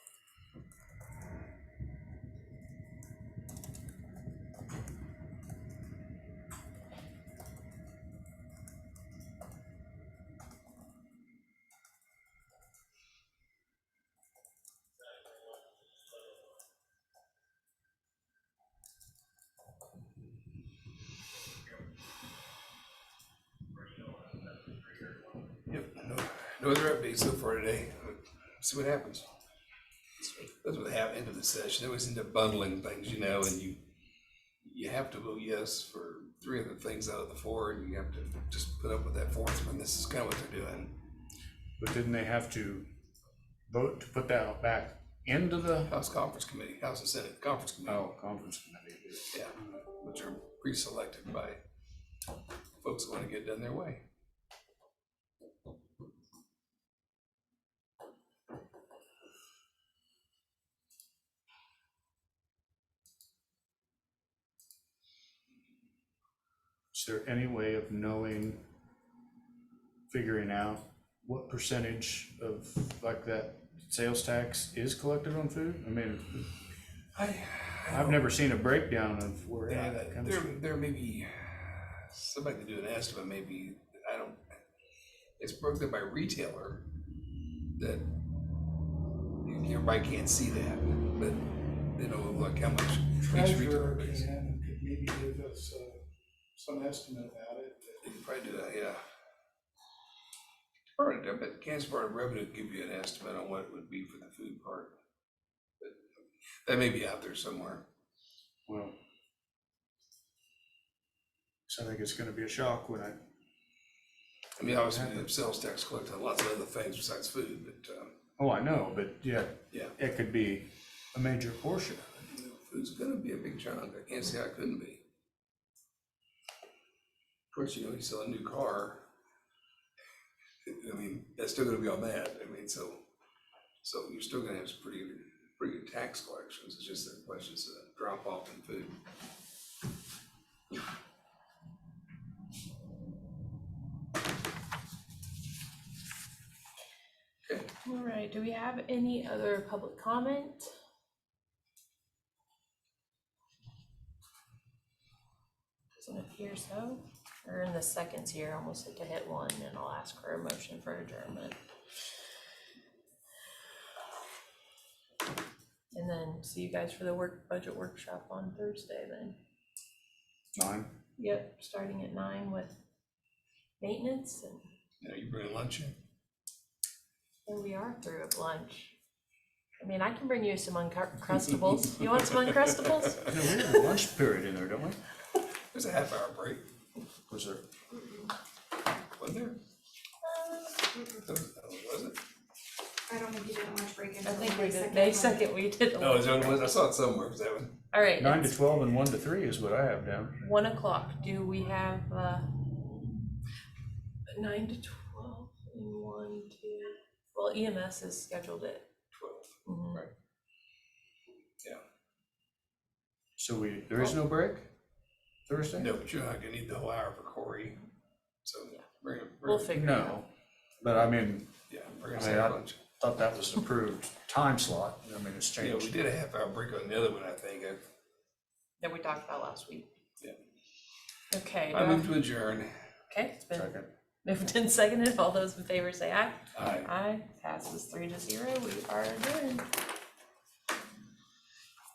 No other updates so far today. See what happens. That's what happened into the session. They always end up bundling things, you know, and you, you have to vote yes for three of the things out of the four, and you have to just put up with that fourth one. This is kind of what they're doing. But didn't they have to vote to put that back into the, House Conference Committee, House and Senate Conference Committee, oh, conference committee? yeah, which are pre-selected by folks who want to get it done their way. Is there any way of knowing, figuring out what percentage of like that sales tax is collected on food? I mean, I, I've never seen a breakdown of where any Yeah, of that comes there, from. there may be, somebody could do an estimate, maybe, I don't, it's broken by retailer that everybody can't see that, but they know, look, how much each treasurer retailer pays. can, could maybe give us, uh, some estimate about it. They could probably do that, yeah. Department, I bet Kansas Department of Revenue could give you an estimate on what it would be for the food part. But That may be out there somewhere. Well. So I think it's gonna be a shock when I, I mean, obviously, the sales tax collected on lots of other things besides food, but, um, oh, I know, but yeah, yeah. it could be a major portion. you know, Food's gonna be a big chunk, I can't say I couldn't be. Of course, you know, you sell a new car. I mean, that's still gonna be on that, I mean, so, so you're still gonna have some pretty, good- pretty good tax collections, it's just that question's a drop off in food. Okay, All right, do we have any other public comment? Doesn't appear so. We're in the seconds here, almost like to hit one, and I'll ask for a motion for adjournment. And then see you guys for the work, budget workshop on Thursday then. Nine, Yep, starting at nine with maintenance, and now you bringing lunch in? Here we are through at lunch. I mean, I can bring you some Uncrustables. You want some Uncrustables? I know, we have a lunch period in there, don't we? There's a half hour break, Was there? wasn't there? Was it? I don't think you did a lunch break I until think we May did, second. May second, we did. No, it was the only one, I saw it somewhere, was that one? All right, Nine to it's twelve and one to three is what I have down. one o'clock. Do we have, uh, nine to twelve and one, two? Well, E EMS is scheduled at, Twelve. mhm. Right. So we, there is no break Thursday? Oh. No, but you're not gonna need the whole hour for Corey, so Yeah. bring him, we'll bring him, figure it out. No, but I mean, yeah, bring him I mean, I- some lunch. thought that was an approved time slot. I mean, it's Yeah, we changed. did a half hour break on the other one, I think. I- That we talked about last week. Yeah. Okay, I do I- moved to adjourn. okay, it's been Second. moved and seconded. All those in favor say aye. Aye. Aye, passes three to zero, we are adjourned.